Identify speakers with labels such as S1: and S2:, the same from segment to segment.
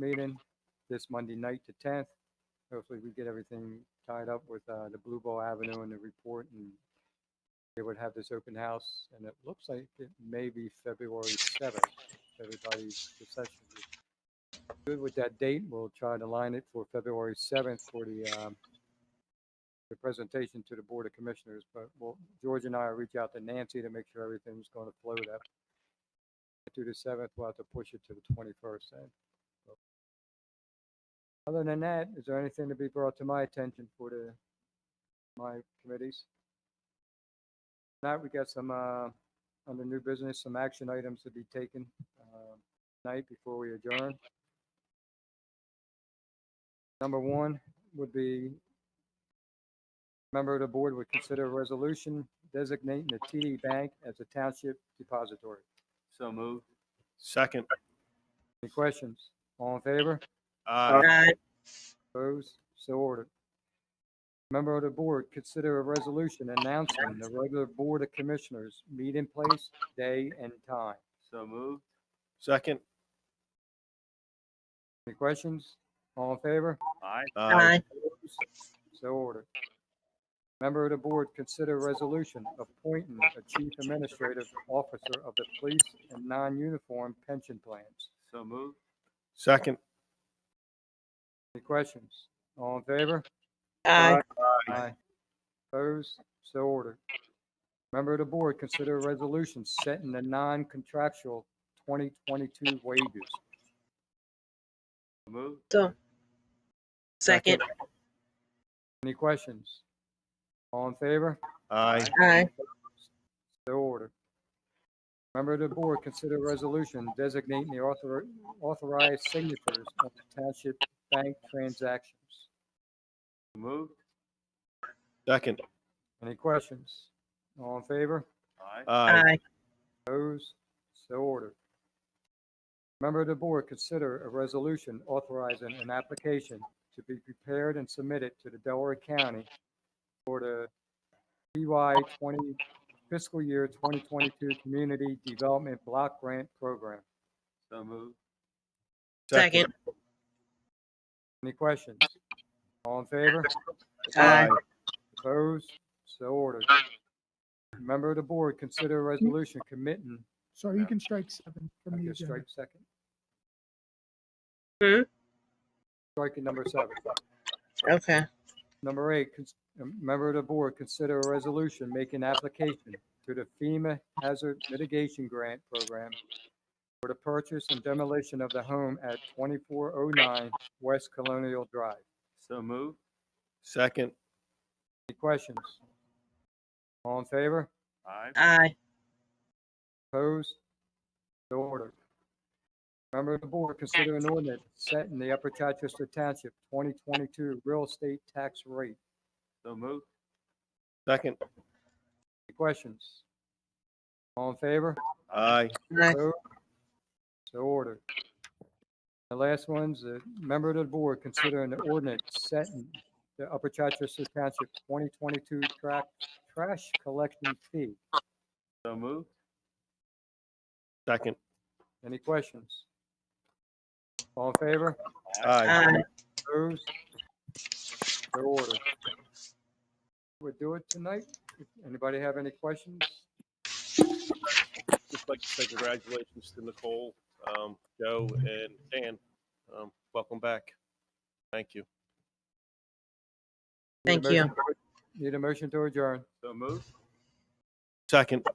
S1: meeting this Monday night, the tenth. Hopefully, we get everything tied up with, uh, the Blue Ball Avenue and the report and they would have this open house and it looks like it may be February seventh. Everybody's reception. is Good with that date. We'll try to line it for February seventh for the, um, the presentation to the Board of Commissioners, but we'll, George and I will reach out to Nancy to make sure everything's gonna flow that through the seventh, we'll have to push it to the twenty-first then. So, Other than that, is there anything to be brought to my attention for the, my committees? Now, we got some, uh, under new business, some action items to be taken, uh, tonight before we adjourn. Number one would be member of the board would consider a resolution designating the TD Bank as a township depository.
S2: So moved.
S3: Second.
S1: Any questions? All in favor?
S3: Aye.
S4: Aye.
S1: Opposed? So ordered. Member of the board, consider a resolution announcing the regular Board of Commissioners meeting place, day, and time.
S2: So moved.
S3: Second.
S1: Any questions? All in favor?
S2: Aye.
S3: Aye.
S4: Aye.
S1: So ordered. Member of the board, consider resolution appointing a chief administrative officer of the police and non-uniform pension plans.
S2: So moved.
S3: Second.
S1: Any questions? All in favor?
S4: Aye.
S1: Aye. Opposed? So ordered. Member of the board, consider a resolution setting the non-contractual 2022 wages.
S2: So moved.
S4: So. Second.
S1: Any questions? All in favor?
S3: Aye.
S4: Aye.
S1: So ordered. Member of the board, consider a resolution designating the author, authorized signatures of the township bank transactions.
S2: So moved.
S3: Second.
S1: Any questions? All in favor?
S2: Aye.
S3: Aye.
S4: Aye.
S1: Opposed? So ordered. Member of the board, consider a resolution authorizing an application to be prepared and submitted to the Delaware County for the BY 20 fiscal year 2022 Community Development Block Grant Program.
S2: So moved.
S4: Second.
S1: Any questions? All in favor?
S4: Aye.
S1: Opposed? So ordered. Member of the board, consider a resolution committing,
S5: Sorry, you can strike seven
S1: I
S5: from the
S1: guess
S5: agenda.
S1: strike second.
S4: Hmm?
S1: Striking number seven.
S4: Okay.
S1: Number eight, cons- a member of the board, consider a resolution making application to the FEMA Hazard Mitigation Grant Program for the purchase and demolition of the home at 2409 West Colonial Drive.
S2: So moved.
S3: Second.
S1: Any questions? All in favor?
S2: Aye.
S4: Aye.
S1: Opposed? So ordered. Member of the board, consider an ordinance setting the Upper Chichester Township 2022 real estate tax rate.
S2: So moved.
S3: Second.
S1: Any questions? All in favor?
S3: Aye.
S4: Aye.
S1: So so ordered. The last one's a member of the board considering the ordinance setting the Upper Chichester Township 2022 track, trash collection fee.
S2: So moved.
S3: Second.
S1: Any questions? All in favor?
S3: Aye.
S4: Aye.
S1: Opposed? So ordered. We'll do it tonight. If Anybody have any questions?
S3: Just like to say congratulations to Nicole, um, Joe, and Dan. Um, welcome back. Thank you.
S1: Need a
S4: Thank you.
S1: motion to- Need a motion to adjourn.
S2: So moved.
S3: Second.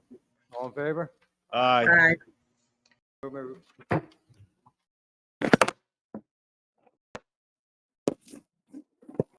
S1: All in favor?
S3: Aye.
S4: Aye.
S1: So moved.